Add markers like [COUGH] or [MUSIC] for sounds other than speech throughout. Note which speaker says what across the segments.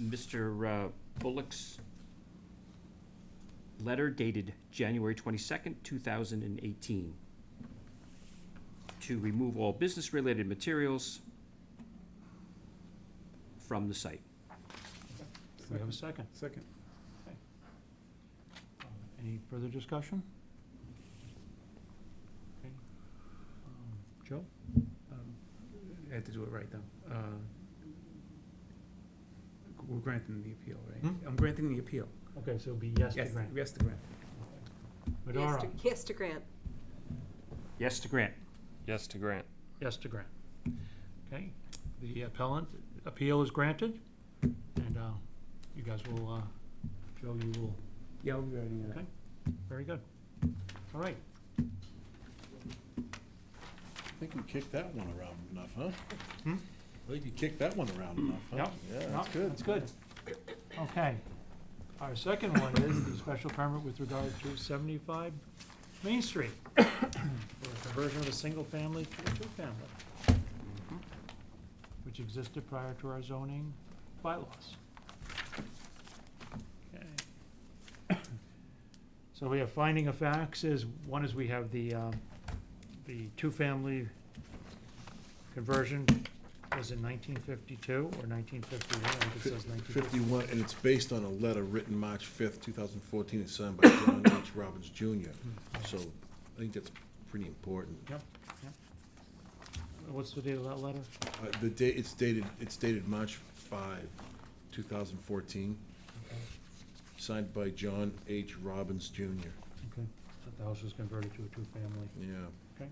Speaker 1: Mr. uh, Bullock's letter dated January twenty-second, two thousand and eighteen, to remove all business-related materials from the site.
Speaker 2: Do we have a second?
Speaker 3: Second.
Speaker 2: Um, Any further discussion? Okay. Um, Joe?
Speaker 3: Um, I had to do it right, though. Uh, We're granting the appeal, right?
Speaker 2: Hmm?
Speaker 3: I'm granting the appeal.
Speaker 2: Okay, so it'll be yes to
Speaker 3: Yes,
Speaker 2: grant.
Speaker 3: yes, the grant.
Speaker 4: Yes
Speaker 2: Madora,
Speaker 4: to- Yes to grant.
Speaker 1: Yes to grant.
Speaker 5: Yes to grant.
Speaker 2: yes to grant. Okay, the appellant, appeal is granted, and uh, you guys will, uh, Joe, you will,
Speaker 3: Yeah, I'll be writing it
Speaker 2: Okay.
Speaker 3: up.
Speaker 2: very good. All right,
Speaker 6: I think you kicked that one around enough, huh?
Speaker 2: Hmm?
Speaker 6: I think you kicked that one around enough, huh?
Speaker 2: Yep.
Speaker 6: Yeah,
Speaker 2: No,
Speaker 6: that's good.
Speaker 2: That's good. Okay. Our second one is the special permit with regard to seventy-five Main Street for a conversion of a single family to a two-family,
Speaker 6: Mm-hmm.
Speaker 2: which existed prior to our zoning bylaws. Okay. [COUGHS] So we have finding of facts is, one is we have the, um, the two-family conversion was in nineteen fifty-two or nineteen fifty-one, I think it says nineteen fifty-two.
Speaker 6: Fifty-one, and it's based on a letter written March fifth, two thousand fourteen, and signed by John
Speaker 2: [COUGHS]
Speaker 6: H. Robbins Jr. So I think that's pretty important.
Speaker 2: Hmm. Yep, yep. What's the date of that letter?
Speaker 6: Uh, the date, it's dated, it's dated March five, two thousand fourteen, signed by John H. Robbins Jr.
Speaker 2: Okay, that the house was converted to a two-family.
Speaker 6: Yeah.
Speaker 2: Okay.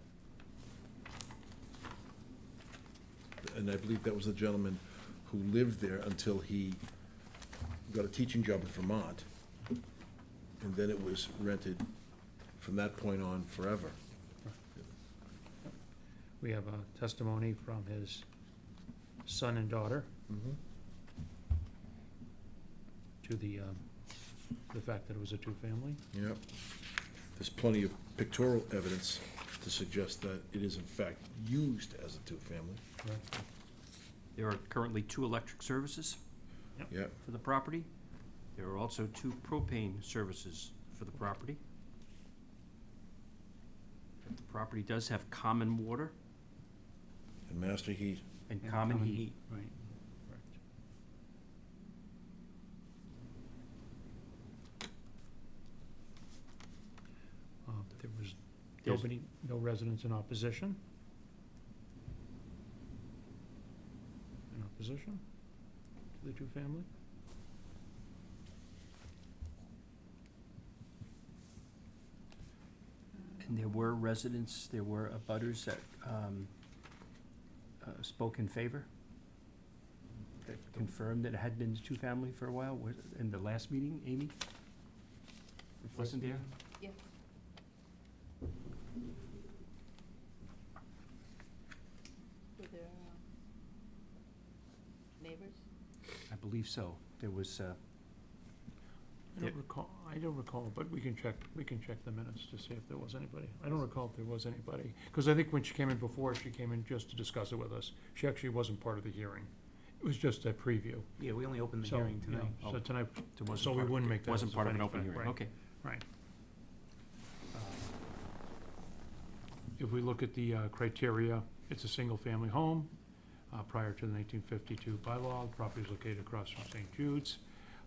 Speaker 6: And I believe that was the gentleman who lived there until he got a teaching job in Vermont. And then it was rented from that point on forever.
Speaker 2: We have a testimony from his son and daughter to the, um, the fact that it was a two-family.
Speaker 6: Yep. There's plenty of pictorial evidence to suggest that it is in fact used as a two-family.
Speaker 2: Correct.
Speaker 1: There are currently two electric services
Speaker 6: Yep,
Speaker 1: for the property. There are also two propane services for the property. The property does have common water
Speaker 6: and master heat.
Speaker 1: and common heat.
Speaker 2: Right. Uh, There was
Speaker 1: There's-
Speaker 2: nobody, no residents in opposition? In opposition to the two-family?
Speaker 1: And there were residents, there were abutters that um, uh, spoke in favor, that confirmed that it had been two-family for a while, Was- in the last meeting, Amy? Wasn't there?
Speaker 4: Yeah. Were there um, neighbors?
Speaker 1: I believe so. There was, uh,
Speaker 2: I
Speaker 1: There-
Speaker 2: don't recall, I don't recall, but we can check, we can check the minutes to see if there was anybody. I don't recall if there was anybody, because I think when she came in before, she came in just to discuss it with us. She actually wasn't part of the hearing. It was just a preview.
Speaker 3: Yeah, we only opened the
Speaker 2: So,
Speaker 3: hearing
Speaker 2: you know,
Speaker 3: tonight.
Speaker 2: So
Speaker 1: Oh.
Speaker 2: tonight,
Speaker 1: there wasn't.
Speaker 2: So we
Speaker 1: part of-
Speaker 2: wouldn't make that
Speaker 1: Wasn't
Speaker 2: as a
Speaker 1: part of an
Speaker 2: finding
Speaker 1: open
Speaker 2: fact,
Speaker 1: hearing,
Speaker 2: right.
Speaker 1: okay.
Speaker 2: if we look at the uh, criteria, it's a single-family home. uh, Prior to the 1952 bylaw, the property is located across from St. Jude's.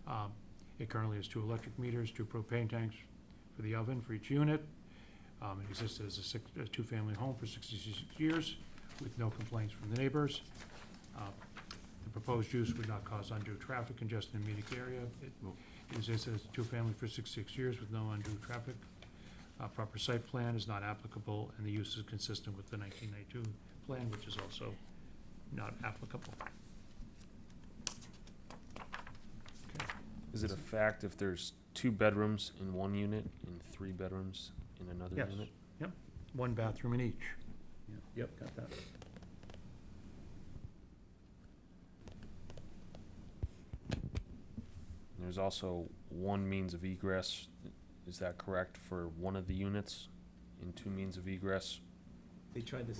Speaker 2: Um, It currently has two electric meters, two propane tanks for the oven for each unit. Um, It existed as a six, a two-family home for 66 years with no complaints from the neighbors. Uh, The proposed use would not cause undue traffic congestion in the immediate area. It
Speaker 1: Nope.
Speaker 2: it existed as a two-family for 66 years with no undue traffic uh, proper site plan is not applicable, and the use is consistent with the nineteen ninety-two plan, which is also not applicable.
Speaker 5: Is it a fact if there's two bedrooms in one unit and three bedrooms in another
Speaker 2: Yes.
Speaker 5: unit?
Speaker 2: One bathroom in each.
Speaker 3: Yep, got that.
Speaker 5: And There's also one means of egress, is that correct, for one of the units? And two means of egress
Speaker 3: They tried this